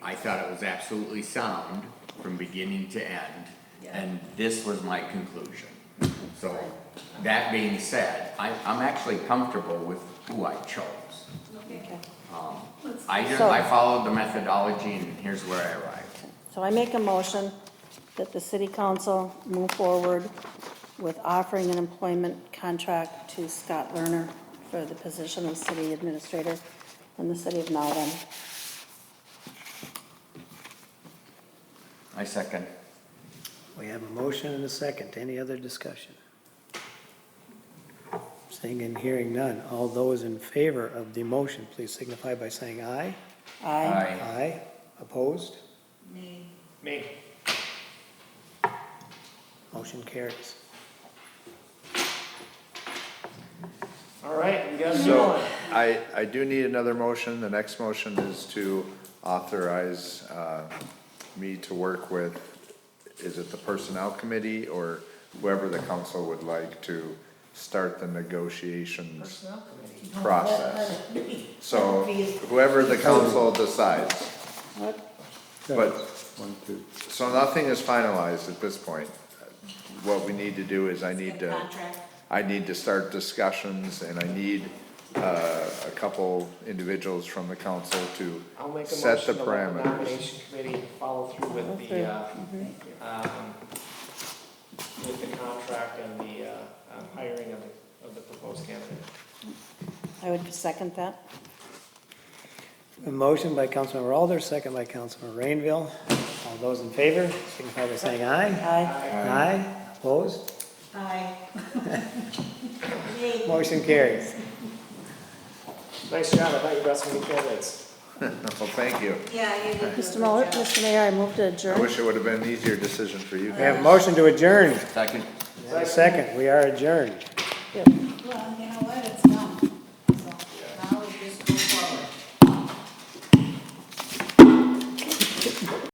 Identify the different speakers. Speaker 1: I thought it was absolutely sound from beginning to end,
Speaker 2: Yeah.
Speaker 1: and this was my conclusion. So, that being said, I, I'm actually comfortable with who I chose.
Speaker 2: Okay.
Speaker 1: I just, I followed the methodology and here's where I arrived.
Speaker 3: So I make a motion that the city council move forward with offering an employment contract to Scott Lerner for the position of city administrator in the city of Malden.
Speaker 1: I second.
Speaker 4: We have a motion and a second. Any other discussion? Seeing and hearing none. All those in favor of the motion, please signify by saying aye.
Speaker 3: Aye.
Speaker 4: Aye. Opposed?
Speaker 2: Me.
Speaker 4: Me. Motion carries.
Speaker 5: All right, we got a new
Speaker 6: So
Speaker 5: one.
Speaker 6: I, I do need another motion. The next motion is to authorize uh, me to work with, is it the Personnel Committee or whoever the council would like to start the negotiations
Speaker 5: Personnel committee.
Speaker 6: process? So whoever the council decides, but, so nothing is finalized at this point. What we need to do is I need to.
Speaker 2: Contract.
Speaker 6: I need to start discussions and I need, uh, a couple individuals from the council to
Speaker 5: I'll make a
Speaker 6: set
Speaker 5: motion to
Speaker 6: the
Speaker 5: let the
Speaker 6: parameters.
Speaker 5: nomination committee follow through with the, uh, um, with the contract and the, uh, um, hiring of the, of the proposed candidate.
Speaker 3: I would second that.
Speaker 4: A motion by Councilmember Alder, second by Councilmember Rainville. All those in favor, signify by saying aye.
Speaker 3: Aye.
Speaker 4: Aye. Opposed?
Speaker 2: Aye. Me.
Speaker 4: Motion carries.
Speaker 5: Nice job, I thought you brought some good candidates.
Speaker 6: Well, thank you.
Speaker 2: Yeah, you did.
Speaker 3: Mr. Muller, Mr. Mayor, I move to
Speaker 6: I
Speaker 3: adjourn.
Speaker 6: wish it would have been an easier decision for you
Speaker 4: We have a
Speaker 6: guys.
Speaker 4: motion to adjourn.
Speaker 1: Second.
Speaker 4: Second, we are adjourned.
Speaker 2: Well, you know what, it's